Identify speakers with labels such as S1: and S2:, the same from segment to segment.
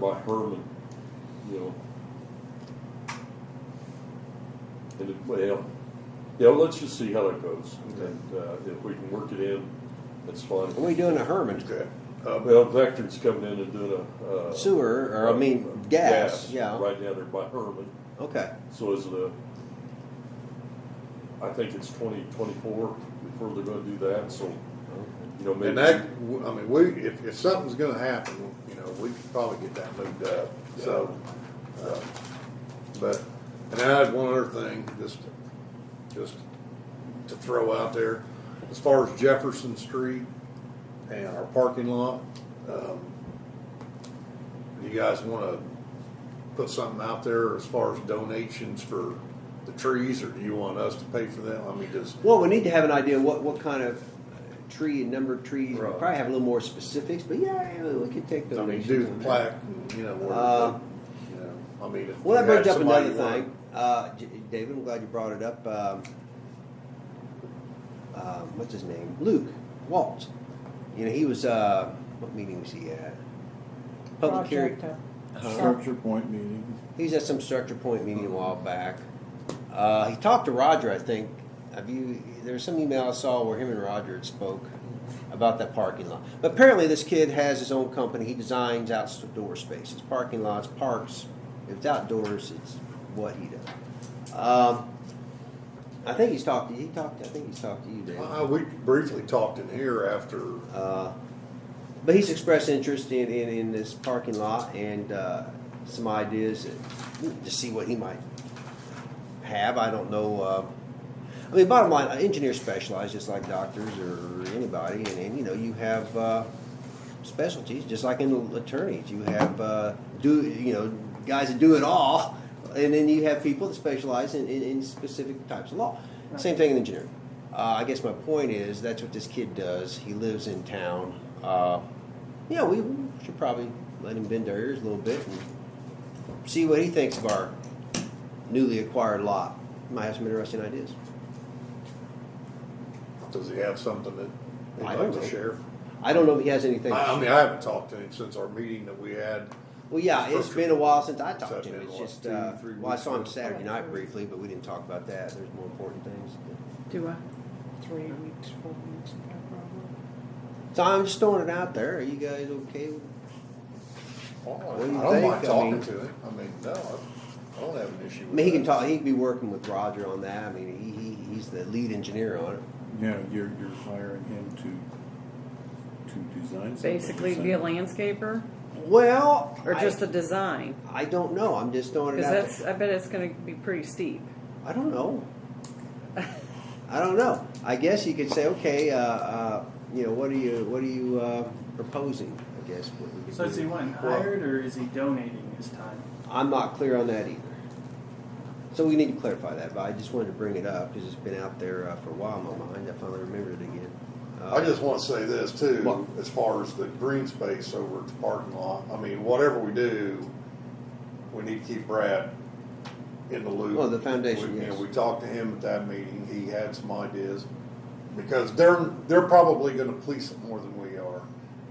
S1: by Herman, you know. And it, well, yeah, let's just see how that goes.
S2: Okay.
S1: And uh, if we can work it in, that's fine.
S2: What are we doing to Herman?
S3: Okay. Uh,
S1: Well, Vector's coming in and doing a. Uh,
S2: Sewer, or I mean, gas, yeah.
S1: Right now they're by Herman.
S2: Okay,
S1: So is the, I think it's 2024 before they're going to do that. So, you know, maybe.
S3: and that, I mean, we, if, if something's gonna happen, you know, we could probably get that moved up, so. uh, But, and I had one other thing, just, just to throw out there, as far as Jefferson Street and our parking lot, um, do you guys wanna put something out there as far as donations for the trees, or do you want us to pay for them? I mean, just
S2: well, we need to have an idea what, what kind of tree and number of trees, We'll
S3: Right.
S2: probably have a little more specifics, but yeah, yeah, we could take
S3: I mean,
S2: donations.
S3: do the
S2: on that.
S3: plaque, and, you know, where,
S2: Uh,
S3: you know, I mean, if
S2: Well, that
S3: you
S2: brings
S3: had
S2: up
S3: somebody
S2: another
S3: work-
S2: thing, uh, J- David, I'm glad you brought it up, um, um, what's his name, Luke Waltz, you know, he was, uh, what meeting was he at? Public hearing.
S4: Projecto.
S5: Structure point meeting.
S2: He was at some structure point meeting a while back. Uh, he talked to Roger, I think. Have you? There was some email I saw where him and Roger had spoke about that parking lot. But apparently, this kid has his own company. He designs outdoor spaces, parking lots, parks. If it's outdoors, it's what he does. Um, I think he's talked to he talked. I think he's talked to you, Dave.
S3: Uh, we briefly talked in here after,
S2: Uh, but he's expressed interest in, in, in this parking lot and uh, some ideas that- to see what he might have. I don't know. Uh, I mean, bottom line, engineers specialize just like doctors or anybody, and, and you know, you have uh, specialties just like in attorneys. You have uh, do you know guys that do it all, and then you have people that specialize in, in, in specific types of law. Same thing in engineering. Uh, I guess my point is that's what this kid does. He lives in town. Uh, yeah, we should probably let him bend our ears a little bit and see what he thinks of our newly acquired lot. Might have some interesting ideas.
S3: does he have something that
S2: I
S3: he'd
S2: don't
S3: like
S2: know.
S3: to share?
S2: I don't know if he has anything.
S3: I, I mean, I haven't talked to him since our meeting that we had.
S2: well, yeah, it's been a while since I talked to
S3: Something
S2: him.
S3: in
S2: It's
S3: the last
S2: just,
S3: two,
S2: uh,
S3: three
S2: well, I
S3: weeks
S2: saw him
S3: or-
S2: Saturday night briefly, but we didn't talk about that. There's more important things.
S4: Do I? Three weeks, four weeks, no problem.
S2: So I'm just throwing it out there. Are you guys okay? with-
S3: I
S2: do you
S3: don't
S2: think?
S3: mind
S2: I
S3: talking
S2: mean-
S3: to him, I mean, no, I- I don't have an issue
S2: I
S3: with
S2: mean, he can
S3: that.
S2: talk. He can be working with Roger on that. I mean, he, he he's the lead engineer on it.
S5: Yeah, you're, you're hiring him to, to design something.
S6: Basically, be a landscaper
S2: Well,
S6: or just
S2: I,
S6: a design?
S2: I don't know. I'm just throwing it
S6: Because
S2: out.
S6: that's,
S2: there.
S6: I bet it's going to be pretty steep.
S2: I don't know. I don't know. I guess you could say, okay, uh, uh, you know, what are you what are you uh, proposing? I guess. What we could
S7: So is
S2: do.
S7: he wanting hired or is he donating his time?
S2: I'm not clear on that either. So we need to clarify that, but I just wanted to bring it up because it's been out there uh, for a while in my mind. I finally remembered it again. Uh,
S3: I just want to say this too,
S2: What?
S3: as far as the green space over at the parking lot, I mean, whatever we do, we need to keep Brad in the loop.
S2: Oh, the foundation,
S3: We- you know,
S2: yes.
S3: We talked to him at that meeting, he had some ideas, because they're, they're probably gonna police it more than we are.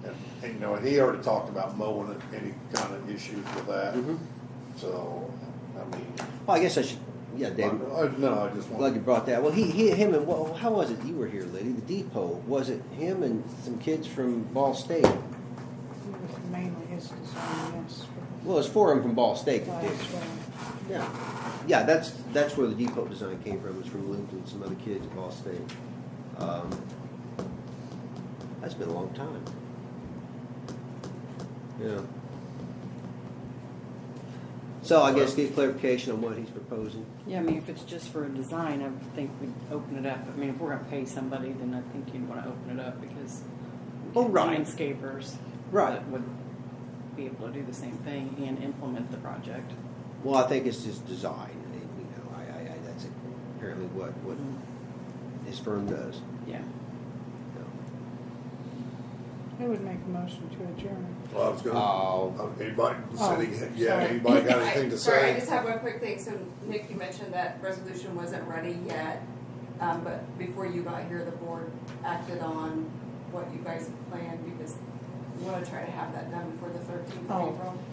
S3: And, and, you know, he already talked about mowing it, any kind of issues with that,
S2: Mhm.
S3: so, I mean,
S2: Well, I guess I should. Yeah,
S3: I,
S2: David.
S3: I- no, I just
S2: Glad you
S3: want,
S2: brought that. Well, he, he, him, and well, how was it? You were here, Liddy. The depot was it? Him and some kids from Ball State.
S4: It was mainly his design, yes. for
S2: Well, it's four of them from Ball State
S4: the
S2: that did. it.
S4: last one.
S2: Yeah, yeah, that's that's where the depot design came from. It was from Luke and some other kids at Ball State. Um, that's been a long time. Yeah. So I guess get clarification on what he's proposing.
S6: Yeah, I mean, if it's just for a design, I would think we'd open it up. I mean, if we're going to pay somebody, then I think you'd want to open it up because we
S2: Oh,
S6: get
S2: right.
S6: landscapers
S2: Right.
S6: that would be able to do the same thing and implement the project.
S2: Well, I think it's just design. I mean, You know, I, I, I, that's apparently what what his firm does.
S6: Yeah.
S2: Yeah.
S4: I would make a motion to adjourn.
S3: well, I was gonna,
S2: Oh,
S3: Uh, anybody,
S4: Oh,
S3: yeah,
S4: sorry.
S3: anybody got anything
S8: I-
S3: to say?
S8: Sorry, I just have one quick thing. So Nick, you mentioned that resolution wasn't ready yet, um, but before you got here, the board acted on what you guys planned because we want to try to have that done before the thirteenth
S6: Oh.
S8: of April.